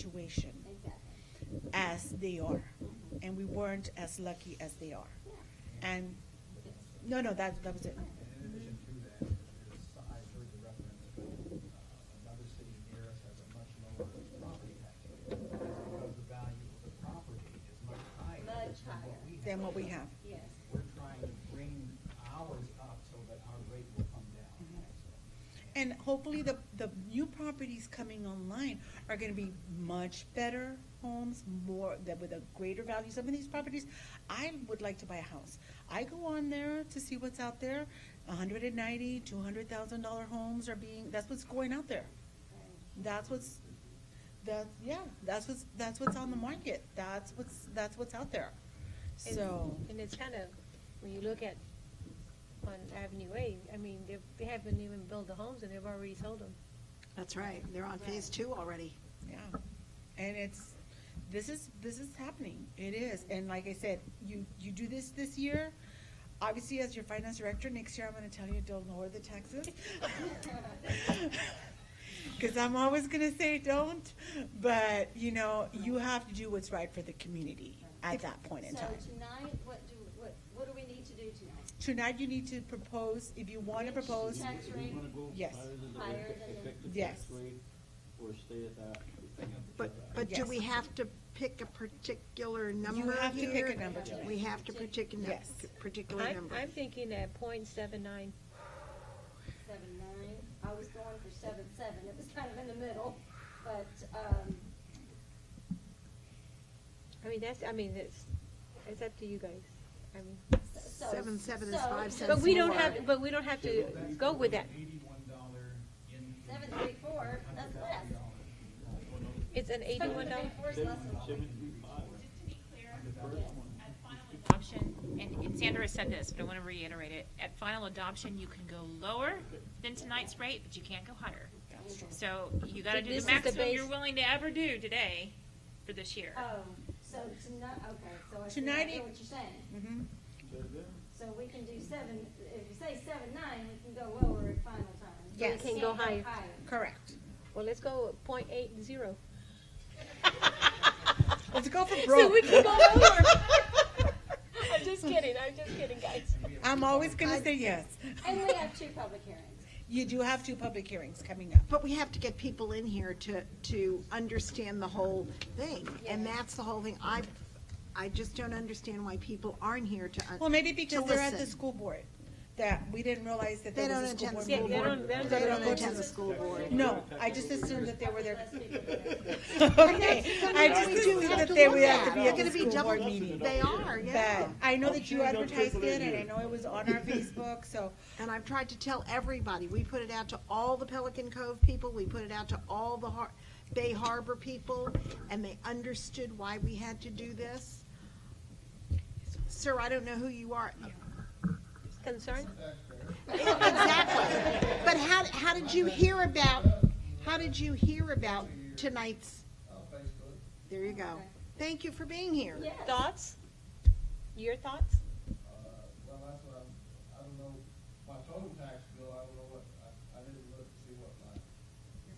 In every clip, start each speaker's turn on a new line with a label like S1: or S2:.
S1: situation
S2: Exactly.
S1: as they are, and we weren't as lucky as they are. And no, no, that that was it.
S3: And in addition to that, is I've heard the reference, uh, another city near us has a much lower property tax rate. That's because the value of the property is much higher
S2: Much
S3: than what
S2: higher.
S1: Than what we
S3: we have.
S1: have.
S2: Yes.
S3: We're trying to bring ours up so that our rate will come down.
S1: Mhm. And hopefully, the the new properties coming online are going to be much better homes, more that with a greater value. Some of these properties, I would like to buy a house. I go on there to see what's out there. One hundred and ninety, two hundred thousand dollar homes are being. That's what's going out there. That's what's that yeah, that's what's that's what's on the market. That's what's that's what's out there.
S4: And-
S1: So
S4: And it's kind of, when you look at, on Avenue A, I mean, they've- they haven't even built the homes and they've already sold them.
S5: That's right, they're on phase two already.
S1: yeah. And it's this is this is happening. It is. And like I said, you you do this this year. Obviously, as your finance director, next year I'm going to tell you don't lower the taxes. Because I'm always going to say don't. But, you know, you have to do what's right for the community at that point in time.
S2: So tonight, what do, what, what do we need to do tonight?
S1: Tonight, you need to propose, if you want to
S2: Which
S1: propose,
S2: tax
S6: Do you
S2: rate?
S6: wanna go
S1: Yes.
S6: higher than the
S2: Higher
S6: rate-
S2: than the-
S6: effective
S1: Yes.
S6: tax rate, Or stay at that?
S5: But, but do
S1: Yes.
S5: we have to pick a particular number here?
S1: have to pick a number tonight.
S5: We have to pick a num-
S1: Yes.
S5: particular
S4: I'm,
S5: number.
S4: I'm thinking at point seven nine.
S2: Seven nine? I was going for seven seven. It was kind of in the middle, but, um,
S4: I mean, that's, I mean, it's, it's up to you guys. I mean,
S2: so- so.
S5: Seven seven is
S2: so-
S5: five cents
S4: but we don't
S5: more.
S4: have, but we don't have to go with that.
S3: Eighty-one dollar in.
S2: Seven three four, that's less.
S4: It's an eighty-one dollar.
S2: Seven three four is less than what we-
S7: Just to be clear, at final adoption, and and Sandra said this, but I want to reiterate it, at final adoption, you can go lower than tonight's rate, but you can't go higher. So you gotta do
S4: This
S7: the
S4: is the
S7: maximum
S4: base-
S7: you're willing to ever do today for this year.
S2: Oh, so tonight, okay, so I see, I
S1: Tonight
S2: hear
S1: it-
S2: what you're saying.
S1: Mm-hmm.
S6: But
S2: So we can do seven, if you say seven nine, we can go lower at final time. But
S1: Yes.
S2: we
S4: Can go higher.
S1: correct.
S4: Well, let's go point eight zero.
S1: Let's go for
S4: So we
S1: broke.
S4: can go lower. I'm just kidding, I'm just kidding, guys.
S1: I'm always gonna say yes.
S2: And we have two public hearings.
S1: You do have two public hearings coming up.
S5: But we have to get people in here to, to understand the whole thing, and
S2: Yes.
S5: that's the whole thing. I, I just don't understand why people aren't here to. un-
S1: Well, maybe
S5: to
S1: because they're at the
S5: listen.
S1: school board, that we didn't realize that
S5: They
S1: there
S5: don't
S1: was a school
S5: attend the
S1: board.
S4: Yeah, they
S5: school
S4: don't,
S5: board.
S4: they don't.
S5: They
S4: go
S5: don't
S4: to
S5: attend
S4: the-
S5: the school board.
S1: No, I just assumed that they were there.
S2: Less people there.
S1: Okay, I
S5: what
S1: just
S5: we do
S1: assumed
S5: have
S1: that
S5: to
S1: they
S5: look
S1: were at
S5: at.
S1: the, at
S5: They're
S1: the
S5: gonna be
S1: school board
S5: double-
S1: meeting.
S5: They are, yeah.
S1: But I know
S6: I'm
S1: that
S6: sure
S1: you
S6: you don't
S1: advertised
S6: triple
S1: it,
S6: it
S1: and I
S6: here.
S1: know it was on our Facebook, so,
S5: And I've tried to tell everybody, we put it out to all the Pelican Cove people, we put it out to all the Har- Bay Harbor people, and they understood why we had to do this. Sir, I don't know who you are.
S4: Concern?
S5: Exactly. But how, how did you hear about, how did you hear about tonight's? There you go. Thank you for being here.
S2: Yes.
S4: Thoughts? Your thoughts?
S3: Well, that's what I'm, I don't know, my total tax bill, I don't know what, I, I didn't look to see what my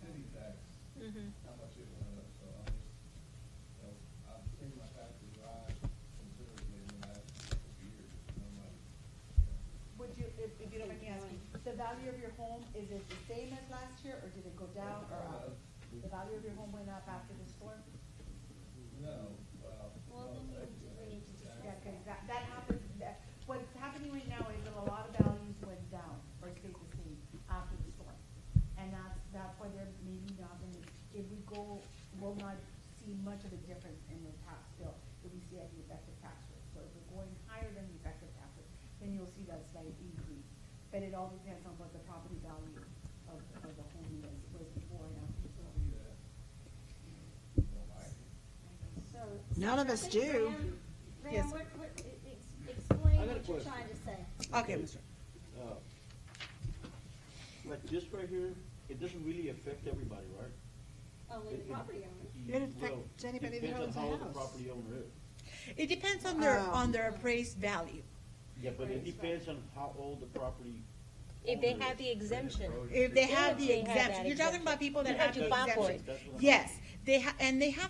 S3: city tax, how much it went up, so I'm just, you know, I've seen my taxes rise considerably in the last couple of years, and I'm like,
S1: would you, if, if you don't mind me asking, the value of your home, is it the same as last year, or did it go down or up? The value of your home went up after the storm?
S3: no, well,
S2: Well, then we need to- we need to discuss
S1: Yeah,
S2: that.
S1: 'cause that, that happens, that, what's happening right now is that a lot of values went down or stayed the same after the storm. And that's, that's why they're maybe not gonna, if we go, we'll not see much of a difference in the tax bill that we see at the effective tax rate. So if we're going higher than the effective tax rate, then you'll see that slight increase. But it all depends on what the property value of, of the home was, was before and after the storm.
S2: So.
S5: None of us
S2: Ram-
S5: do.
S2: Ram,
S1: Yes.
S2: what, what, ex- explain
S6: I got a
S2: what you're
S6: question.
S2: trying to say.
S1: Okay, Mr.
S6: Uh, this right here, it doesn't really affect everybody, right?
S2: Only Oh, the
S6: It- it-
S2: property owner.
S5: It
S6: Well,
S5: affects anybody that
S6: depends on
S5: owns a
S6: how
S5: house.
S6: the property owner is.
S1: It depends on
S5: their- on
S1: their appraised value.
S6: Yeah, but it
S2: Right.
S6: depends on how old the property.
S4: If they
S6: owner
S4: have
S6: is.
S4: the exemption.
S1: If they have
S4: They
S1: the
S4: have that
S1: exemption, you're talking about people that
S4: You
S1: have
S4: have to
S1: the
S4: file for
S1: exemption.
S6: it. That's what I'm-
S1: Yes, they ha, and they have